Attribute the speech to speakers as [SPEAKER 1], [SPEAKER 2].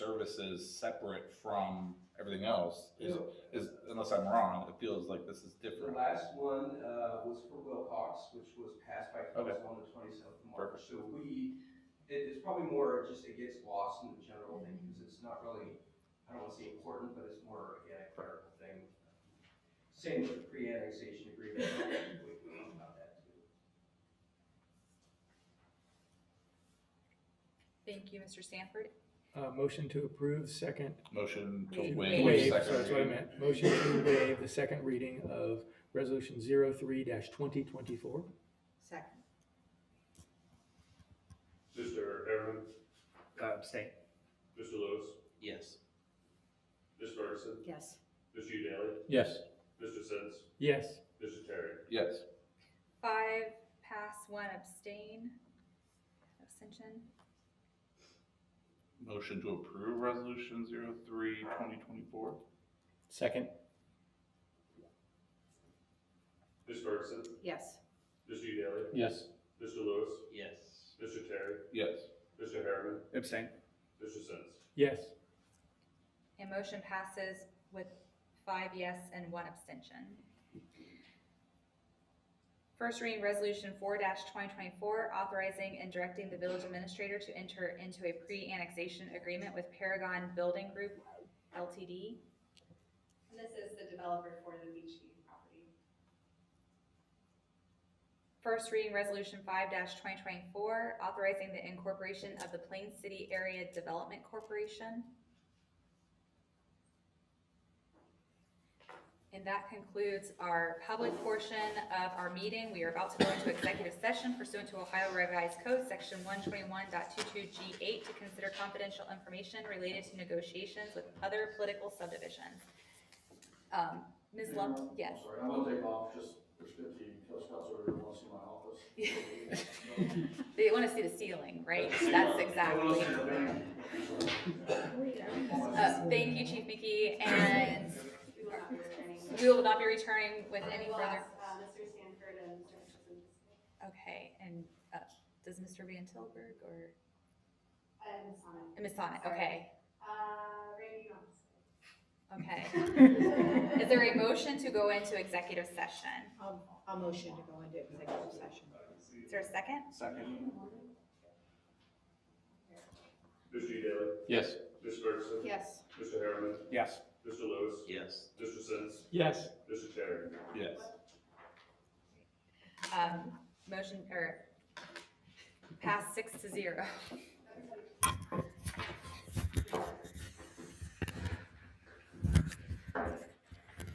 [SPEAKER 1] this is separate from everything else, is,
[SPEAKER 2] So,
[SPEAKER 1] is, unless I'm wrong, it feels like this is
[SPEAKER 2] The
[SPEAKER 1] different.
[SPEAKER 2] last one uh, was for Wilcox, which was passed by council on the twenty-seventh of March. So we, it- it's probably more just it gets lost in the general thing because it's not really, I don't want to say important, but it's more again a clerical thing. Same with the pre-annexation agreement, we talked about that too.
[SPEAKER 3] Thank you, Mr. Sanford.
[SPEAKER 4] Uh, motion to approve, second.
[SPEAKER 1] Motion to
[SPEAKER 3] Waive.
[SPEAKER 1] waive
[SPEAKER 4] Waive, sorry,
[SPEAKER 1] second
[SPEAKER 4] that's what I
[SPEAKER 1] reading.
[SPEAKER 4] meant. Motion to waive the second reading of resolution zero three dash twenty twenty-four.
[SPEAKER 3] Second.
[SPEAKER 5] Mr. Herron,
[SPEAKER 6] Uh, Abstain.
[SPEAKER 5] Mr. Lewis,
[SPEAKER 1] Yes.
[SPEAKER 5] Ms. Ferguson,
[SPEAKER 3] Yes.
[SPEAKER 5] Mr. Daly,
[SPEAKER 4] Yes.
[SPEAKER 5] Mr. Sins,
[SPEAKER 4] Yes.
[SPEAKER 5] Mr. Terry.
[SPEAKER 1] Yes.
[SPEAKER 3] Five, pass, one abstain, abstention.
[SPEAKER 1] Motion to approve resolution zero three twenty twenty-four?
[SPEAKER 4] Second.
[SPEAKER 5] Ms. Ferguson,
[SPEAKER 3] Yes.
[SPEAKER 5] Mr. Daly,
[SPEAKER 4] Yes.
[SPEAKER 5] Mr. Lewis,
[SPEAKER 1] Yes.
[SPEAKER 5] Mr. Terry,
[SPEAKER 1] Yes.
[SPEAKER 5] Mr. Herron,
[SPEAKER 6] Abstain.
[SPEAKER 5] Mr. Sins.
[SPEAKER 4] Yes.
[SPEAKER 3] And motion passes with five yes and one abstention. First reading resolution four twenty twenty-four, authorizing and directing the village administrator to enter into a pre-annexation agreement with Paragon Building Group LTD.
[SPEAKER 7] And this is the developer for the Beach View property.
[SPEAKER 3] First reading resolution five twenty twenty-four, authorizing the incorporation of the Plain City Area Development Corporation. And that concludes our public portion of our meeting. We are about to go into executive session pursuant to Ohio Revised Code, section one twenty-one G eight, to consider confidential information related to negotiations with other political subdivisions. Um, Ms. Lum, yes.
[SPEAKER 8] I'm sorry, I'm gonna take off just prescription, because Councilor Ritter wants to see my office.
[SPEAKER 3] They want to see the ceiling, right? That's exactly. Uh, Thank you, Chief Mickey, and
[SPEAKER 7] We will not be returning.
[SPEAKER 3] we will not be returning with any
[SPEAKER 7] We will
[SPEAKER 3] further.
[SPEAKER 7] ask, uh, Mr. Sanford and Mr. Hutchinson to stay.
[SPEAKER 3] Okay, and uh, does Mr. Van Tilburg or,
[SPEAKER 7] And Sonnet.
[SPEAKER 3] and Ms. Sonnet, okay,
[SPEAKER 7] Uh, Randy, you don't have to stay.
[SPEAKER 3] okay. Is there a motion to go into executive session?
[SPEAKER 9] I'll, I'll motion to go into executive session.
[SPEAKER 3] Is there a second?
[SPEAKER 6] Second.
[SPEAKER 5] Mr. Daly,
[SPEAKER 6] Yes.
[SPEAKER 5] Ms. Ferguson,
[SPEAKER 9] Yes.
[SPEAKER 5] Mr. Herron,
[SPEAKER 6] Yes.
[SPEAKER 5] Mr. Lewis,
[SPEAKER 1] Yes.
[SPEAKER 5] Mr. Sins,
[SPEAKER 4] Yes.
[SPEAKER 5] Mr. Terry.
[SPEAKER 1] Yes.
[SPEAKER 3] Um, Motion, or, pass six to zero.